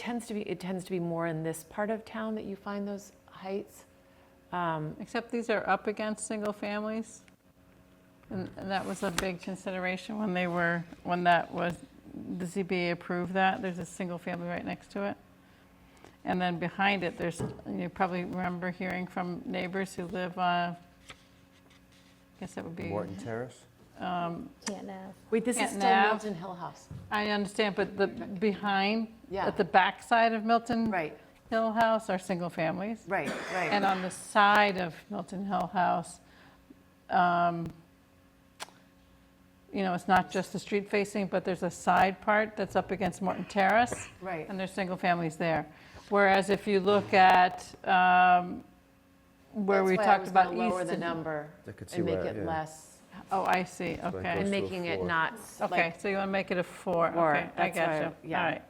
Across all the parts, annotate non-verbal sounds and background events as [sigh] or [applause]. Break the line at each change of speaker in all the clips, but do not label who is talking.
tends to be, it tends to be more in this part of town that you find those heights. Um,
Except these are up against single families. And and that was a big consideration when they were, when that was, the ZBA approved that. There's a single family right next to it. And then behind it, there's, you probably remember hearing from neighbors who live, uh, I guess that would be.
Morton Terrace?
Can't have.
Wait, this is
Canton
still
Ave.
Milton Hill House.
I understand, but the, behind,
Yeah.
at the backside of Milton
Right,
Hill House are single families.
right,
And
right.
on the side of Milton Hill House, um, you know, it's not just the street facing, but there's a side part that's up against Morton Terrace.
Right.
And there's single families there. Whereas if you look at um, where we talked about east.
Lower the
and-
number
I could see
and make
where,
it
yeah.
less,
Oh, I see,
goes
and
okay.
to a
making it
four.
not,
Okay,
like,
so you want to make it a four,
Four,
okay, I
that's why I-
got you.
yeah.
All right,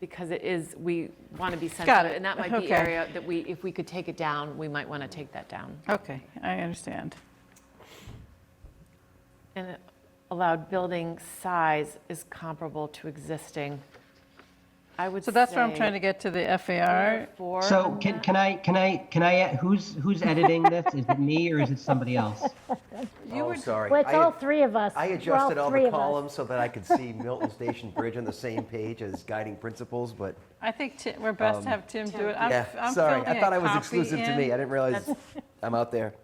because it is, we want to be sensitive.
it.
And that might be
Okay.
area that we, if we could take it down, we might want to take that down.
okay, I understand.
And allowed building size is comparable to existing. I would say.
So that's where I'm trying to get to the FAR.
Four.
So
on
can,
that.
can I, can I, can I, add- who's, who's editing this? Is it me or is it somebody else?
You
Oh,
were-
sorry.
Well, it's
I
all
ad-
three of us.
I
We're
adjusted all
three
the
of us.
columns so that I could see Milton Station Bridge on the same page as guiding principles, but
I think Ti- we're best to have Tim do it. I'm-
Um, yeah,
I'm
sorry.
filling
I
a
thought I was
copy
exclusive to me.
in.
I didn't realize [laughs] I'm
[laughs]
out there.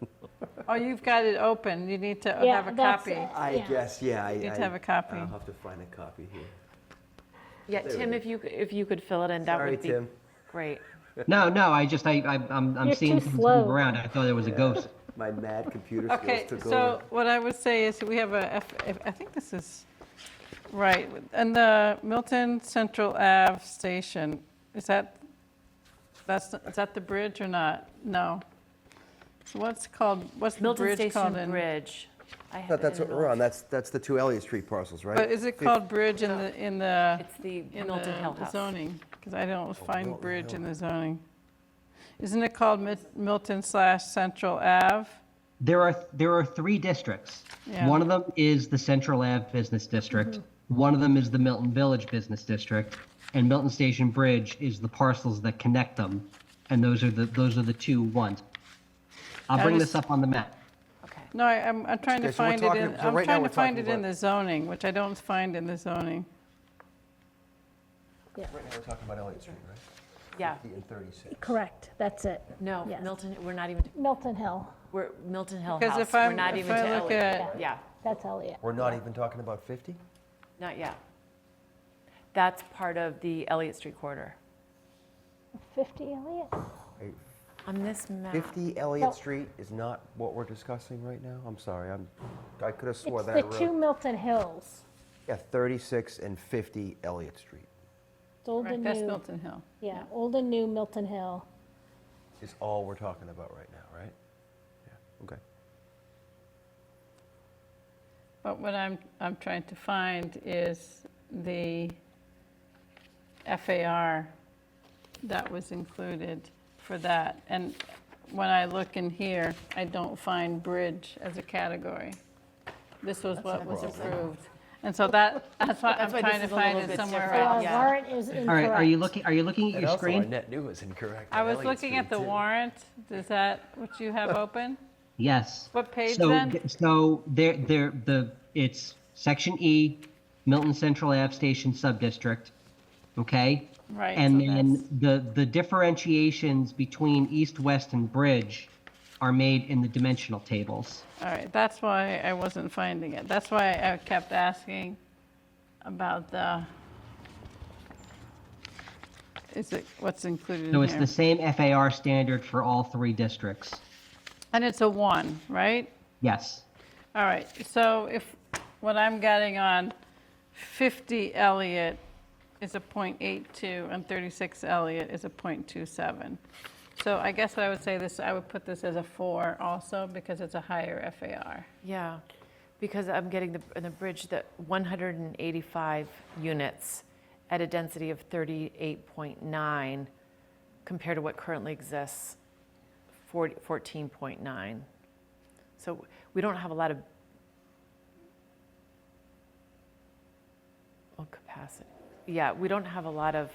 Oh, you've got it open. You need to
Yeah,
have a
that's
copy.
it.
I
Yeah.
guess, yeah. I
need to
I-
have a copy.
I'll have to find a copy here.
Yeah,
There we
Tim,
go.
if you, if you could fill it in, that
Sorry,
would be
Tim.
great.
No, no, I just, I, I- I'm, I'm
You're
seeing
too
things
slow.
move around. I thought there was a ghost.
My mad computer skills
Okay,
took
so
over.
what I would say is we have a, F- F- I think this is, right, and the Milton Central Ave Station, is that, that's, is that the bridge or not? No. So what's called, what's the
Milton
bridge called
Station
in?
Bridge. I
I
have
thought
it
that's
in
what we're
Milton.
on. That's, that's the two Elliott Street parcels, right?
But is it
Fif-
called bridge in the, in the?
It's the
in
Milton Hill
the
House.
zoning, because I don't find
Milton
bridge
Hill.
in the zoning. Isn't it called Mil- Milton slash Central Ave?
There are, there are three districts.
Yeah.
One of them is the Central Ave Business District.
Mm-hmm.
One of them is the Milton Village Business District. And Milton Station Bridge is the parcels that connect them. And those are the, those are the two ones. I'll bring this up on the map.
Okay.
No, I- I'm, I'm trying to
Okay, so we're
find it
talking-
in,
so
I'm
right now
trying
we're
to find
talking
it in
about-
the zoning, which I don't find in the zoning.
Right now, we're talking about Elliott Street, right?
Yeah,
50 and 36.
Correct, that's it.
no,
Yes.
Milton, we're not even,
Milton Hill,
we're Milton Hill
Because
House.
if
We're
I'm,
not
if
even to
I look
Elliott.
at,
Yeah,
that's Elliot.
We're not even talking about 50?
not yet. That's part of the Elliott Street corridor.
50 Elliot?
Right.
On this map.
50
No.
Elliott Street is not what we're discussing right now? I'm sorry, I'm, I could have swore
It's
that I
the two
wrote.
Milton Hills,
Yeah, 36 and 50 Elliott Street
It's old
right,
and
that's
new,
Milton Hill.
yeah, old and new Milton Hill.
is all we're talking about right now, right? Yeah, okay.
But what I'm, I'm trying to find is the FAR that was included for that. And when I look in here, I don't find bridge as a category. This was what was approved. And so that, that's what I'm
That's why this
trying to
is a little
find it
bit
somewhere
different.
Uh,
else.
Yeah.
Warrant is incorrect.
All right, are you looking, are you looking at
And
your
also,
screen?
our net new is incorrect.
I
on
was
Elliott
looking at
Street,
the
too.
warrant. Is that what you have open?
Yes.
What page
So
then?
th- So there, there, the, it's section E, Milton Central Ave Station Subdistrict, okay?
Right,
And
so
then the, the differentiations between east, west, and bridge are made in the dimensional tables.
All right, that's why I wasn't finding it. That's why I kept asking about the, is it, what's included
So
in
it's
here?
the same FAR standard for all three districts.
And it's a one, right?
Yes.
All right, so if, what I'm getting on 50 Elliott is a .82 and 36 Elliott is a .27. So I guess what I would say this, I would put this as a four also because it's a higher FAR.
Yeah, because I'm getting the, in the bridge, that 185 units at a density of 38.9 compared to what currently exists, 40 14.9. So we don't have a lot of oh, capacity. Yeah, we don't have a lot of